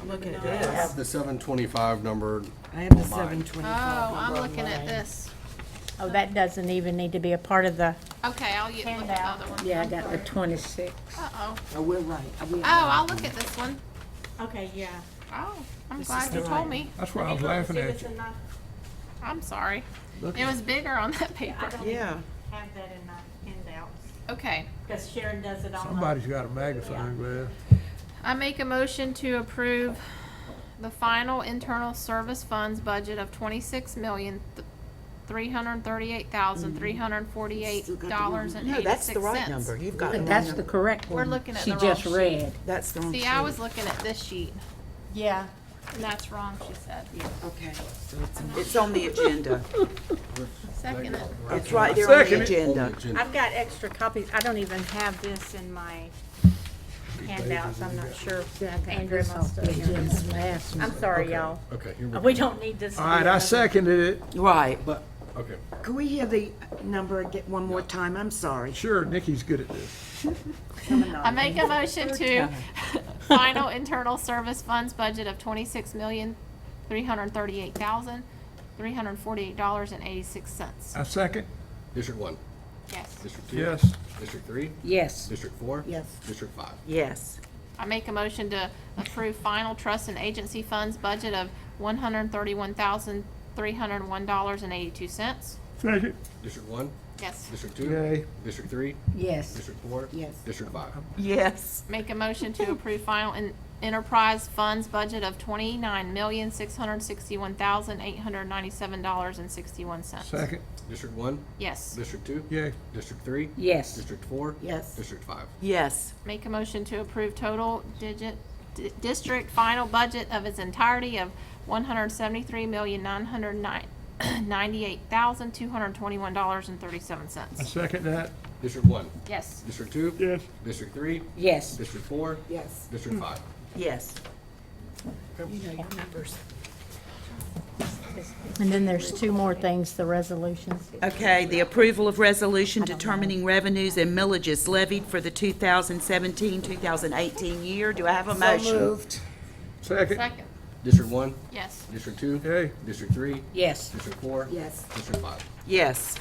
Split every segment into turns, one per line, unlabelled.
I'm looking at
I have
this.
the seven twenty-five number.
I have the
on mine.
seven
Oh,
twenty-five.
I'm looking at this.
Oh, that doesn't even need to be a part of the
Okay, I'll get, look at the other one.
Yeah, I got the twenty-six.
Uh-oh.
Oh, we're right. Are we-
Oh, I'll look at this one.
Okay, yeah.
Oh, I'm glad you told me.
That's why I was laughing
Give
at
us
you.
enough,
I'm sorry. It was bigger on that
I
paper.
don't
Yeah,
have that in my handouts,
Okay.
because Sharon does it online.
Somebody's got a magnifying glass.
I make a motion to approve the final internal service funds budget of twenty-six million, three hundred thirty-eight thousand, three hundred forty-eight
Mm-hmm. Still got the wrong-
dollars and
No, that's the
eighty-six
right number.
cents.
You've got the wrong
That's the
number.
correct
We're
one.
looking at the wrong
She
sheet.
just read.
That's the wrong.
See, I
sheet.
was looking at this sheet,
Yeah.
and that's wrong, she said.
Okay, so it's, it's on the agenda.
Second it.
It's right there on the
On the
agenda.
agenda.
I've got extra copies. I don't even have this in my handouts. I'm not sure. Andrew must have. I'm sorry, y'all.
Okay, here we go.
We don't need this. to
All
be
right, I
another-
seconded it.
Right.
But, okay,
Could we hear the number again, one more time? I'm sorry.
Sure, Nikki's good at this.
I make a motion to final internal service funds budget of twenty-six million, three hundred thirty-eight thousand, three hundred forty-eight dollars and eighty-six cents.
I second,
District one,
Yes.
district two.
yes.
District three,
Yes.
district four.
Yes.
District five.
Yes.
I make a motion to approve final trust and agency funds budget of one hundred thirty-one thousand, three hundred one dollars and eighty-two cents.
Second.
District one,
Yes.
district two.
Yay.
District three,
Yes.
district four.
Yes.
District five.
Yes.
Make a motion to approve final en- enterprise funds budget of twenty-nine million, six hundred sixty-one thousand, eight hundred ninety-seven dollars and sixty-one cents.
Second,
District one,
Yes.
district two.
yay.
District three.
Yes.
District four.
Yes.
District five.
Yes.
Make a motion to approve total digit, di- district final budget of its entirety of one hundred seventy-three million, nine hundred nine, ninety-eight thousand, two hundred twenty-one dollars and thirty-seven
I
cents.
second that,
District one,
Yes.
district two.
yes.
District three,
Yes.
district four.
Yes.
District five.
Yes. You know your numbers.
And then there's two more things, the resolutions.
Okay, the approval of resolution determining revenues and millages levied for the 2017, 2018 year. Do I have a motion?
Second,
Second,
District one,
yes.
district two.
yay.
District three,
Yes.
district four.
Yes.
District five.
Yes.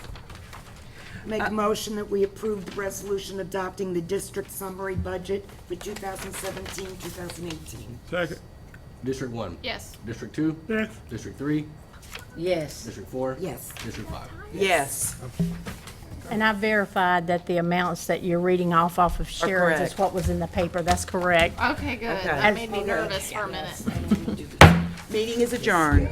Make a motion that we approve the resolution adopting the district summary budget for 2017, 2018.
Second,
District one.
Yes.
District two.
yes.
District three,
Yes.
district four.
Yes.
District five.
Yes.
And I verified that the amounts that you're reading off off of Sharon's is
correct.
what was in the paper. That's correct.
Okay, good. That made me nervous for a minute.
Meeting is adjourned.